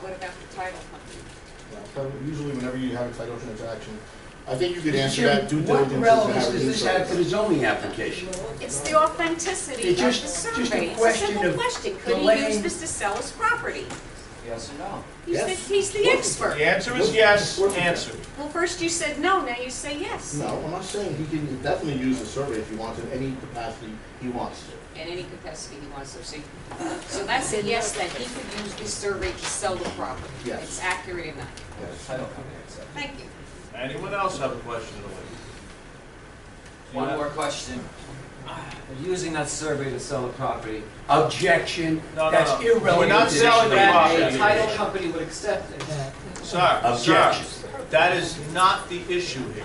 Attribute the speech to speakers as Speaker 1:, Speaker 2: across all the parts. Speaker 1: what about the title company?
Speaker 2: Yeah, so Usually whenever you have a title transaction, I think you could answer
Speaker 3: Jim,
Speaker 2: that due diligence.
Speaker 3: What
Speaker 2: and
Speaker 3: relevance
Speaker 2: have
Speaker 3: does this have to the
Speaker 2: insights.
Speaker 3: zoning application?
Speaker 1: It's the authenticity of
Speaker 3: It's
Speaker 1: the
Speaker 3: just- just a
Speaker 1: survey. It's a
Speaker 3: question
Speaker 1: simple
Speaker 3: of
Speaker 1: question. Could he
Speaker 3: delaying-
Speaker 1: use this to sell his property?
Speaker 4: Yes or no?
Speaker 1: He's the,
Speaker 3: Yes.
Speaker 1: he's the expert.
Speaker 5: The answer is yes, answered.
Speaker 1: Well, first you said no, now you say yes.
Speaker 2: No, I'm not saying he can definitely use the survey if he wants in any capacity he wants to.
Speaker 1: In any capacity he wants to see. So that's a yes, that he could use this survey to sell the property.
Speaker 2: Yes.
Speaker 1: It's accurate enough.
Speaker 2: Yes.
Speaker 4: Title company accepted.
Speaker 1: Thank you.
Speaker 5: Anyone else have a question to leave?
Speaker 4: One more question. Using that survey to sell a property,
Speaker 3: Objection,
Speaker 5: No, no,
Speaker 3: that's
Speaker 5: no.
Speaker 3: irrelevant.
Speaker 5: We're not
Speaker 3: to this
Speaker 5: selling the
Speaker 3: matter.
Speaker 5: property.
Speaker 4: that a title company would accept it.
Speaker 5: Sir,
Speaker 3: Objection.
Speaker 5: sir, that is not the issue here.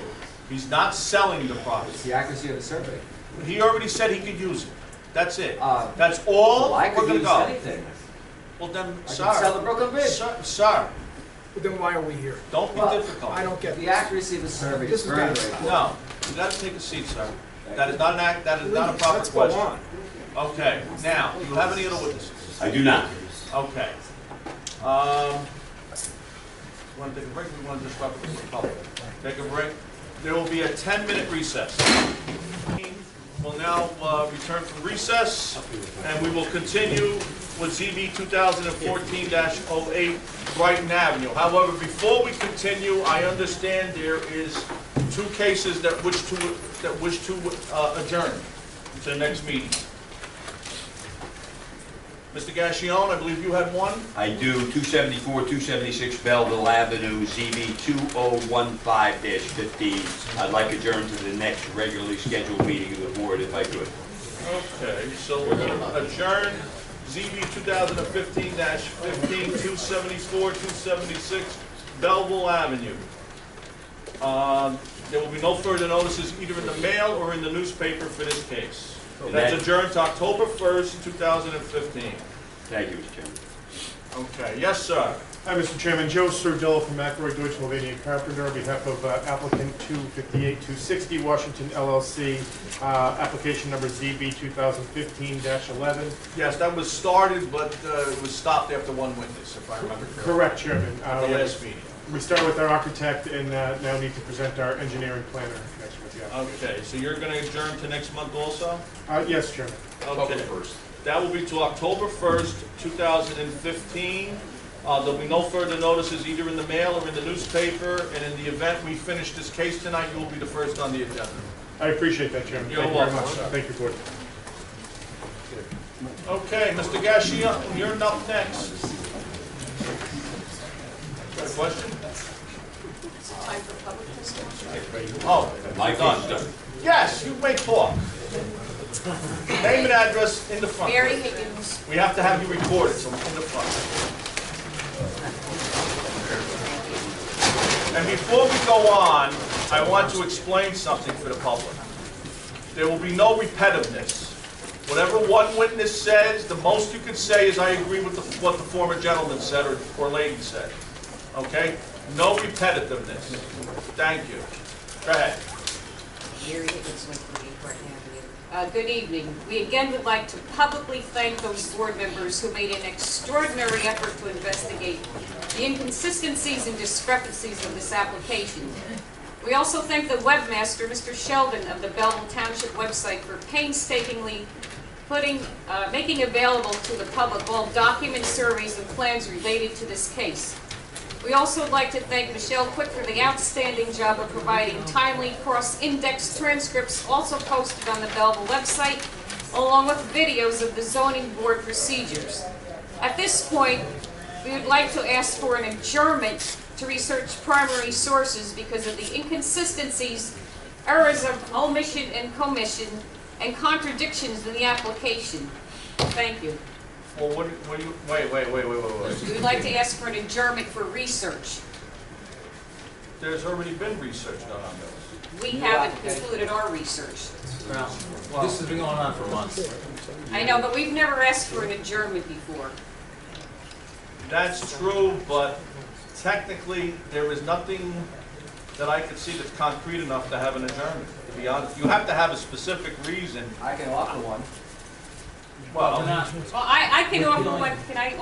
Speaker 5: He's not selling the
Speaker 4: It's
Speaker 5: property.
Speaker 4: the accuracy of the survey.
Speaker 5: He already said he could use it. That's it.
Speaker 4: Uh,
Speaker 5: That's all
Speaker 4: Well, I
Speaker 5: we're
Speaker 4: could
Speaker 5: gonna
Speaker 4: use
Speaker 5: go.
Speaker 4: anything.
Speaker 5: Well, then,
Speaker 4: I could sell the
Speaker 5: sir,
Speaker 4: Brooklyn Bridge.
Speaker 5: sir, sir,
Speaker 6: But Then why are we here?
Speaker 5: don't be
Speaker 4: Well,
Speaker 5: difficult.
Speaker 6: I don't get
Speaker 4: The
Speaker 6: this.
Speaker 4: accuracy of the survey
Speaker 6: This
Speaker 4: is
Speaker 6: is
Speaker 4: very
Speaker 6: bad.
Speaker 4: great.
Speaker 5: No, you gotta take a seat, sir. That is not an act, that is not a
Speaker 6: Please,
Speaker 5: proper
Speaker 6: let's go
Speaker 5: question.
Speaker 6: on.
Speaker 5: Okay, now, do you have any other witnesses?
Speaker 3: I do not.
Speaker 5: Okay. Um, want to take a break, we want to disrupt the public. Take a break. There will be a 10-minute recess. We'll now uh, return from recess, and we will continue with ZB 2014-08 Brighton Avenue. However, before we continue, I understand there is two cases that wish to, that wish to uh, adjourn to the next meeting. Mr. Gassion, I believe you had one?
Speaker 3: I do, 274, 276 Belleville Avenue, ZB 2015-15. I'd like adjourned to the next regularly scheduled meeting of the board if I could.
Speaker 5: Okay, so we're gonna adjourn ZB 2015-15, 274, 276 Belleville Avenue. Um, There will be no further notices either in the mail or in the newspaper for this case. That's adjourned to October 1st, 2015.
Speaker 3: Thank you, Mr. Chairman.
Speaker 5: Okay, yes, sir.
Speaker 7: Hi, Mr. Chairman. Joe Sardillo from McRoy Deutsch Sylvania Carpenter on behalf of uh, applicant 258-260 Washington LLC, uh, application number ZB 2015-11.
Speaker 5: Yes, that was started, but uh, it was stopped after one witness, if I remember correctly.
Speaker 7: Correct, Chairman.
Speaker 5: At the
Speaker 7: Uh,
Speaker 5: last meeting.
Speaker 7: We start with our architect and uh, now need to present our engineering planner in connection with the application.
Speaker 5: Okay, so you're gonna adjourn to next month also?
Speaker 7: Uh, Yes, Chairman.
Speaker 5: Okay. That will be to October 1st, 2015. Uh, There'll be no further notices either in the mail or in the newspaper, and in the event we finish this case tonight, you will be the first on the agenda.
Speaker 7: I appreciate that, Chairman.
Speaker 5: You're
Speaker 7: Thank you very
Speaker 5: welcome,
Speaker 7: much.
Speaker 5: sir.
Speaker 7: Thank you, Board.
Speaker 5: Okay, Mr. Gassion, you're up next. Got a question?
Speaker 1: Is it time for public discussion?
Speaker 5: Oh,
Speaker 3: My
Speaker 5: done.
Speaker 3: case is done.
Speaker 5: Yes, you may talk. Name and address in the front.
Speaker 1: Mary Higgins,
Speaker 5: We have to have you recorded, so in the front. And before we go on, I want to explain something for the public. There will be no repetitiveness. Whatever one witness says, the most you can say is, "I agree with the- what the former gentleman said or- or lady said." Okay? No repetitiveness. Thank you. Go ahead.
Speaker 1: Mary Higgins, one Brighton Avenue. Uh, good evening. We again would like to publicly thank those board members who made an extraordinary effort to investigate the inconsistencies and discrepancies of this application. We also thank the webmaster, Mr. Sheldon, of the Belleville Township website for painstakingly putting, uh, making available to the public all documents, surveys, and plans related to this case. We also would like to thank Michelle Quick for the outstanding job of providing timely cross-index transcripts also posted on the Belleville website, along with videos of the zoning board procedures. At this point, we would like to ask for an adjournment to research primary sources because of the inconsistencies, errors of omission and commission, and contradictions in the application. Thank you.
Speaker 5: Well, what, do- what do you, wait, wait, wait, wait, wait, wait.
Speaker 1: We would like to ask for an adjournment for research.
Speaker 5: There's already been research done on this.
Speaker 1: We
Speaker 4: New
Speaker 1: haven't
Speaker 4: application.
Speaker 1: concluded our research.
Speaker 5: Well-
Speaker 4: This has been going on for months.
Speaker 1: I know, but we've never asked for an adjournment before.
Speaker 5: That's true, but technically, there is nothing that I could see that's concrete enough to have an adjournment, to be honest. You have to have a specific reason.
Speaker 4: I can offer one.
Speaker 5: Well,
Speaker 1: Well, I, I can offer one, can I